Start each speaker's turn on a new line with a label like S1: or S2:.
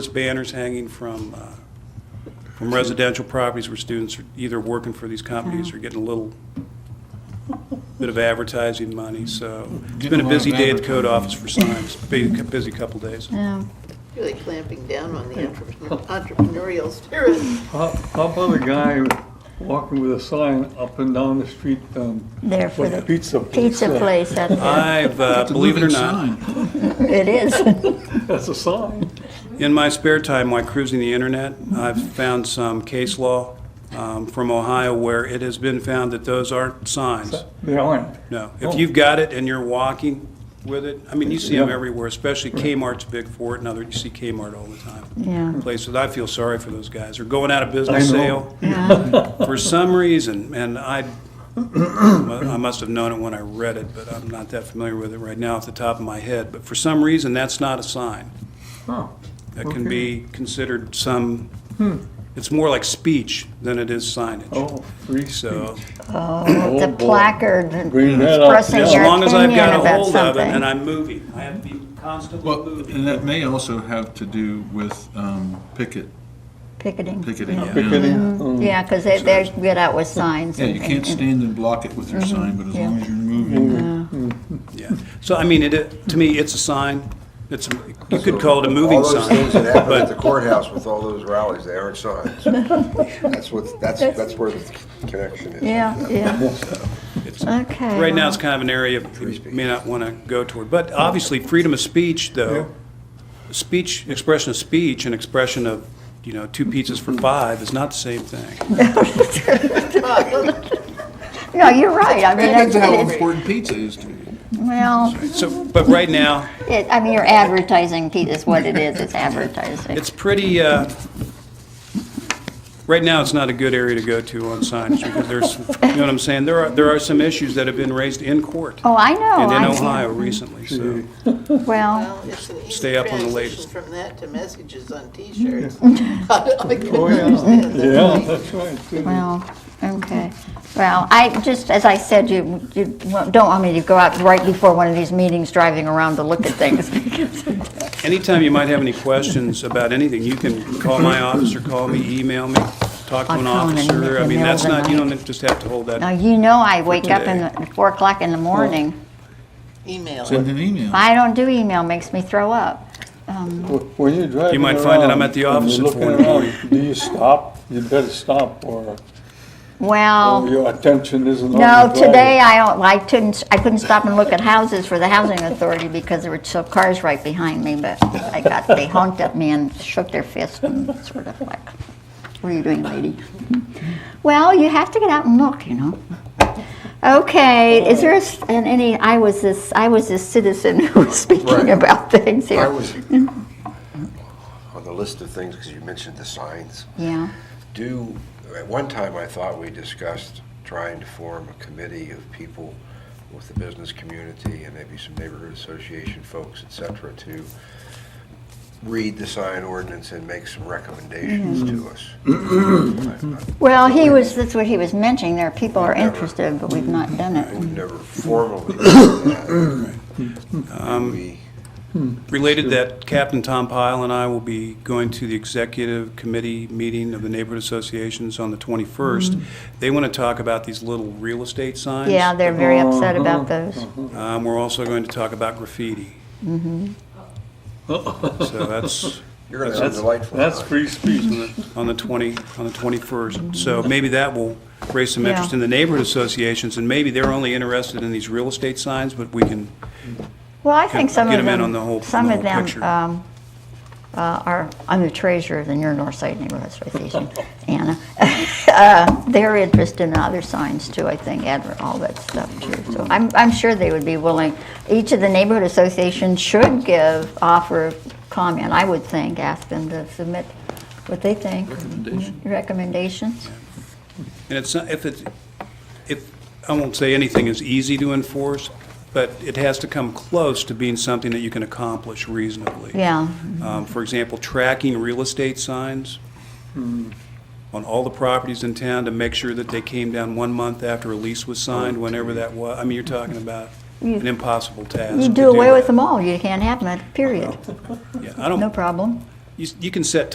S1: There's banners hanging from, uh, from residential properties where students are either working for these companies or getting a little bit of advertising money, so it's been
S2: Getting
S1: a
S2: a lot
S1: busy
S2: of
S1: day at the code office for signs, busy, busy couple days.
S3: Yeah.
S4: Really clamping down on the entrepreneur- entrepreneurial spirit.
S2: How how about a guy walking with a sign up and down the street, um,
S3: There for
S2: like
S3: the
S2: pizza place?
S3: pizza place out there.
S1: I've, uh, believe it or not,
S3: It is.
S2: That's a sign.
S1: in my spare time while cruising the internet, I've found some case law um, from Ohio where it has been found that those aren't signs.
S2: They aren't.
S1: No,
S2: Oh.
S1: if you've got it and you're walking with it, I mean, you see them
S2: Yeah.
S1: everywhere, especially Kmart's big for it, and other, you see Kmart all the time.
S3: Yeah.
S1: Places, I feel sorry for those guys, they're going out of
S2: I
S1: business
S2: know.
S1: sale for some reason, and I, I must have known it when I read it, but I'm not that familiar with it right now off the top of my head, but for some reason, that's not a sign.
S2: Huh.
S1: That can
S2: Okay. Hmm.
S1: be considered some, it's more like speech than it is signage.
S2: Oh, free
S1: So,
S2: speech.
S3: Oh, the
S2: boy.
S3: placard and
S2: Bring that up.
S3: expressing
S1: as
S3: your
S1: long as I've
S3: opinion
S1: got a
S3: about
S1: hold of it and
S3: something.
S1: I'm moving, I have to be constantly
S5: Well,
S1: moving.
S5: and that may also have to do with um, picket,
S3: Picketing. Mm-hmm.
S5: picketing. yeah.
S2: Picketing,
S1: Mm.
S2: um,
S3: Yeah, because they, they get out with signs.
S5: Yeah,
S3: and-
S5: you can't
S3: and-
S5: stand and block it with your sign, but as long as you're moving.
S1: Yeah, so I mean, it, to me, it's a sign, it's, you could call it a moving
S6: All those things
S1: sign.
S6: that happened at the
S1: But,
S6: courthouse with all those rallies, they aren't signs. That's what, that's, that's where the connection is.
S3: Yeah, yeah. Okay.
S1: right now, it's kind of an area you may not want to go toward. But obviously, freedom of speech, though, speech, expression of speech and expression of, you know, two pizzas for five is not the same thing.
S3: No, you're right. I mean,
S5: Depends how
S3: it's- it's-
S5: important pizza is to you.
S3: well,
S1: So, but right now,
S3: it, I mean, you're advertising, Pete, is what it is. It's advertising.
S1: it's pretty, uh, right now, it's not a good area to go to on signage because there's, you know what I'm saying? There are, there are some issues that have been raised in court
S3: Oh, I know.
S1: and in
S3: I-
S1: Ohio recently, so.
S3: Well,
S4: Well, it's an easy
S1: Stay up on the
S4: transition
S1: latest.
S4: from that to messages on T-shirts. I couldn't understand that.
S2: Yeah, that's right.
S3: well, okay. Well, I, just as I said, you, you don't want me to go out right before one of these meetings driving around to look at things.
S1: Anytime you might have any questions about anything, you can call my office or call me, email me, talk to
S3: I'll
S1: an
S3: call in the
S1: officer. I mean,
S3: middle of
S1: that's
S3: the
S1: not, you
S3: night.
S1: don't just have to hold
S3: Now,
S1: that.
S3: you know I wake up in
S1: Today.
S3: the, four o'clock
S6: Oh.
S3: in the morning.
S4: Email.
S5: Send an email.
S3: I don't do email, makes me throw up. Um,
S2: Wh- When you're driving around.
S1: You might find that I'm at the
S2: and
S1: office
S2: you're
S1: at four in
S2: looking
S1: the
S2: around,
S1: morning.
S2: Do you stop? You better stop or
S6: Oh,
S2: or
S3: Well,
S2: your attention isn't on
S3: no,
S2: the
S3: today
S2: driver.
S3: I don't, I couldn't, I couldn't stop and look at houses for the housing authority because there were so cars right behind me, but I got, they honked at me and shook their fist and sort of like, what are you doing, lady? Well, you have to get out and look, you know. Okay, is there a s- and any, I was this, I was this citizen who was
S6: Right.
S3: speaking about things
S6: I
S3: here.
S6: was on the list of things, because you mentioned the signs.
S3: Yeah,
S6: Do, at one time, I thought we discussed trying to form a committee of people with the business community and maybe some neighborhood association folks, et cetera, to read the sign ordinance and make some recommendations to us. I- I-
S3: well, he was, that's what he was mentioning, there are people are interested, but we've not done it.
S6: We've never formally done that. We-
S1: Related that Captain Tom Pyle and I will be going to the executive committee meeting of the neighborhood associations on the 21st. They want to talk about these little real estate signs.
S3: Mm-hmm. Yeah, they're very upset about those.
S1: Um, We're also going to talk about graffiti.
S3: Mm-hmm.
S1: So that's,
S6: You're going to have a
S2: That's,
S6: delightful
S2: that's
S6: time.
S2: free speech.
S1: on the 20, on the 21st. So maybe that will raise some
S3: Yeah.
S1: interest in the neighborhood associations, and maybe they're only interested in these real estate signs, but we can,
S3: Well, I think
S1: Get-
S3: some
S1: get
S3: of
S1: 'em in on
S3: them,
S1: the whole-
S3: some
S1: the whole
S3: of them
S1: picture.
S3: um, uh, are, I'm the treasurer of the Near North Side Neighborhood Association, Anna. Uh, They're interested in other signs too, I think, adver, all that stuff too. So I'm, I'm sure they would be willing, each of the neighborhood associations should give, offer comment, I would think, ask them to submit what they think. Recommendations. Recommendations.
S1: and it's, not if it's, if, I won't say anything is easy to enforce, but it has to come close to being something that you can accomplish reasonably.
S3: Yeah,
S1: Um, For example, tracking real estate signs on all the properties in town to make sure that they came down one month after a lease was signed, whenever that was. I mean, you're talking about an impossible task.
S3: you
S1: to
S3: do away
S1: that.
S3: with them all, you can't have them, period,
S1: Yeah, I don't,
S3: no problem.
S1: you, s- you can set